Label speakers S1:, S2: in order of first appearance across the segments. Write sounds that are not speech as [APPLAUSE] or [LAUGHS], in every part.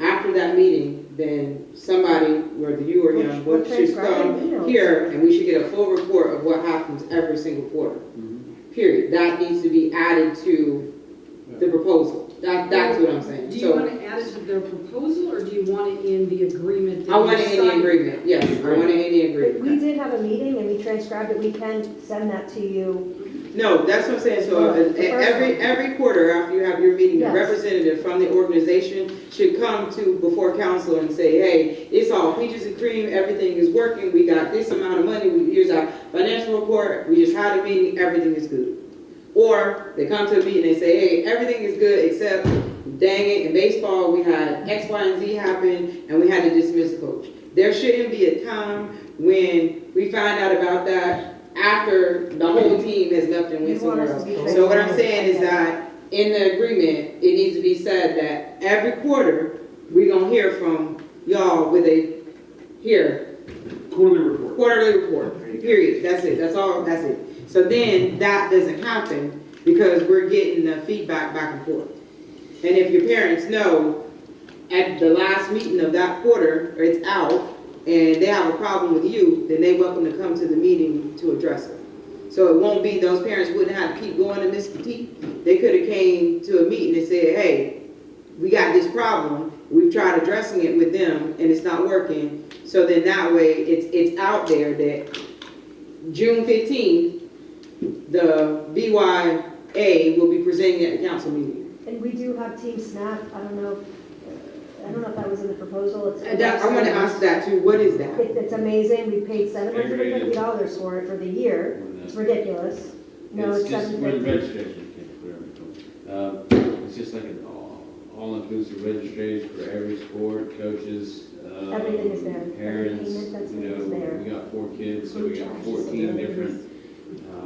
S1: after that meeting, then somebody, whether you or him,
S2: We'll- we'll
S1: would- should
S2: transcribe the
S1: come
S2: emails.
S1: here and we should get a full report of what happens every single quarter. Period. That needs to be added to the proposal. That, that's what I'm saying.
S3: Do you want
S1: So
S3: to add it to their proposal, or do you want it in the agreement? that
S1: I want
S3: you
S1: it in the
S3: signed?
S1: agreement. Yes, I want it in the
S2: But
S1: agreement.
S2: we did have a meeting and we transcribed it, we can send that to you.
S1: No, that's what I'm saying, so uh,
S2: The first
S1: every,
S2: one.
S1: every quarter after you have your meeting, a
S2: Yes.
S1: representative from the organization should come to, before council and say, hey, it's all peaches and cream, everything is working, we got this amount of money, we- here's our financial report, we just had a meeting, everything is good. Or they come to a meeting, they say, hey, everything is good except, dang it, in baseball, we had X, Y, and Z happen, and we had to dismiss a coach. There shouldn't be a time when we find out about that after the whole team has left and
S2: You
S1: went
S2: want us
S1: somewhere else.
S2: to be
S1: So what I'm
S2: transparent.
S1: saying is that in the agreement, it needs to be said that every quarter, we gonna hear from y'all with a, here,
S4: Quarterly report.
S1: quarterly report, period, that's it, that's all, that's it. So then, that doesn't happen, because we're getting the feedback back and forth. And if your parents know, at the last meeting of that quarter, or it's out, and they have a problem with you, then they welcome to come to the meeting to address it. So it won't be, those parents wouldn't have to keep going to Miss Petite, they could've came to a meeting and said, hey, we got this problem, we've tried addressing it with them, and it's not working. So then that way, it's, it's out there that June fifteenth, the BYA will be presenting at the council meeting.
S2: And we do have Team Snap, I don't know, if- I don't know if that was in the proposal, it's.
S1: And Uh, that, I wanna ask that too, what is that?
S2: It- It's amazing, we paid seven hundred and fifty dollars for it for the year, it's ridiculous. No, it's
S5: just
S2: seven
S5: we're
S2: fifty.
S5: registration, can't clear it. Um, It's just like an all- all-inclusive registration for every sport, coaches, uh,
S2: Everything is there.
S5: Parents,
S2: Entertainment, that's
S5: you
S2: what is there.
S5: know, we got four kids, so we got fourteen different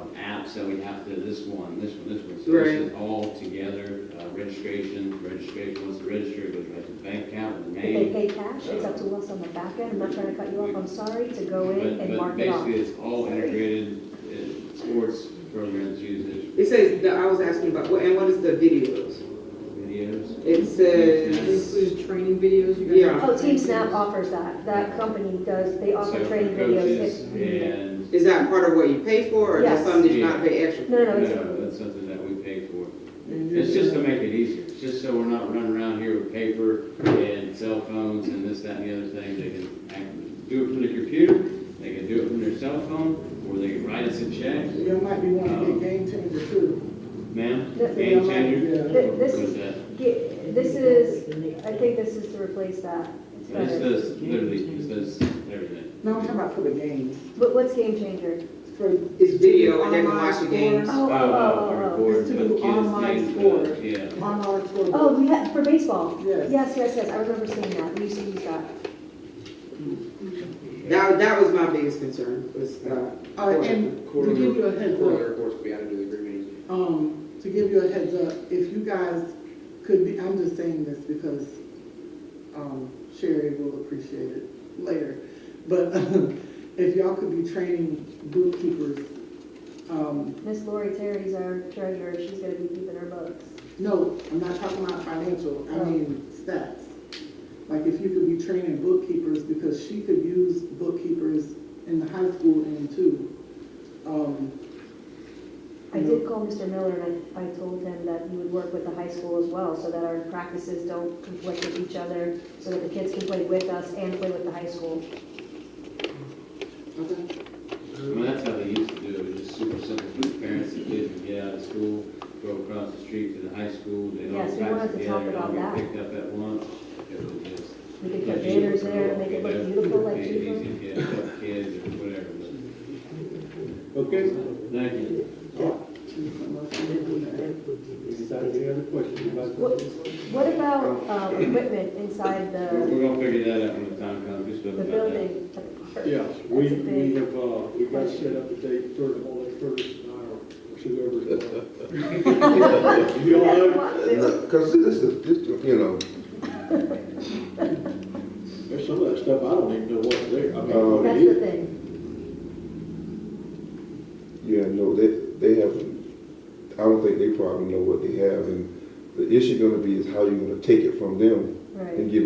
S5: um, apps that we have to, this one, this one, this one. So
S1: Right.
S5: this is all together, uh, registration, registration, once the register, it goes right to the bank account, with the
S2: If they
S5: name.
S2: pay cash, it's up to us on the back end, I'm not trying to cut you off, I'm sorry, to go in
S5: But,
S2: and
S5: but
S2: mark it off.
S5: basically, it's all integrated, uh, sports programs use
S1: It says, that I was asking about, what- and what is the videos?
S5: it, videos.
S1: It
S3: Does it
S1: says,
S3: include training videos? You guys
S1: Yeah.
S3: have
S2: Oh, Team Snap
S3: videos?
S2: offers that, that company does, they
S5: So
S2: offer
S5: for
S2: training
S5: coaches
S2: videos. that-
S5: And,
S1: is that part of what you pay for, or that's
S2: Yes.
S1: something that you not pay extra? for?
S2: No, no,
S5: no,
S2: it's,
S5: that's something that we pay for. It's just to make it easier, it's just so we're not running around here with paper and cell phones and this, that, and the other thing. They can act- do it from the computer, they can do it from their cell phone, or they can write us a check,
S6: Y'all might be wanting to get game changer too.
S5: ma'am,
S2: Th-
S5: game
S6: Yeah,
S5: changer.
S6: yeah.
S2: Th- this
S5: What
S2: is-
S5: that?
S2: Ge- this is, I think this is to replace that. It's
S5: This
S2: better.
S5: does, literally, this does everything.
S6: No, I'm talking about for the games.
S2: But what's Game Changer?
S6: For
S1: It's video, and they can
S6: online
S1: watch the games.
S6: scores,
S2: Oh, oh,
S5: Uh,
S2: oh, oh, oh.
S5: record,
S6: It's to
S5: but
S6: do
S5: kids
S6: online
S5: games,
S6: sport.
S5: uh, Yeah.
S6: Online scores.
S2: Oh, we had, for baseball?
S6: Yes.
S2: Yes, yes, yes, I remember seeing that, we used to use that.
S1: That, that was my biggest concern, was, uh,
S2: Oh,
S6: Uh, and to give you a heads
S7: Quarterly
S6: up,
S7: reports will be added to the agreement.
S6: um, to give you a heads up, if you guys could be, I'm just saying this because, um, Sherry will appreciate it later. But [LAUGHS] if y'all could be training bookkeepers, um,
S2: Miss Lori Terry's our treasurer, she's gonna be keeping her books.
S6: No, I'm not talking about financial, I mean stats. Like if you could be training bookkeepers, because she could use bookkeepers in the high school and too. Um,
S2: I did call Mr. Miller and I, I told him that he would work with the high school as well, so that our practices don't conflict with each other, so that the kids can play with us and play with the high school.
S6: okay.
S5: Well, that's how they used to do it, it was just super simple, for the parents, the kids would get out of school, go across the street to the high school, they'd all
S2: Yes, we wanted
S5: pack
S2: to talk
S5: together, all
S2: about
S5: get
S2: that.
S5: picked up at once. It was just-
S2: We could
S5: like,
S2: put banners there,
S5: you
S2: make it
S5: know,
S2: look beautiful like
S5: easy,
S2: Chico.
S5: easy, yeah, help kids or whatever, but. Okay. Thank you.
S4: Any other questions about
S2: What, what about, um, equipment inside
S5: We're,
S2: the,
S5: we're gonna figure that out when the time comes, just
S2: Uh, the
S5: about that.
S2: building?
S4: Yeah,
S2: That's a
S4: we, we
S2: big-
S4: have, uh, we got set up a date for the holiday first, or whoever's. [LAUGHS] You all
S2: That's
S4: right?
S2: lots of-
S8: Because this is, this, you know,
S4: There's some of that stuff, I don't even know what's there, I mean, what it
S2: That's the
S4: is.
S2: thing.
S8: yeah, no, they, they have, I don't think they probably know what they have, and the issue gonna be is how you gonna take it from them
S2: Right.
S8: and give it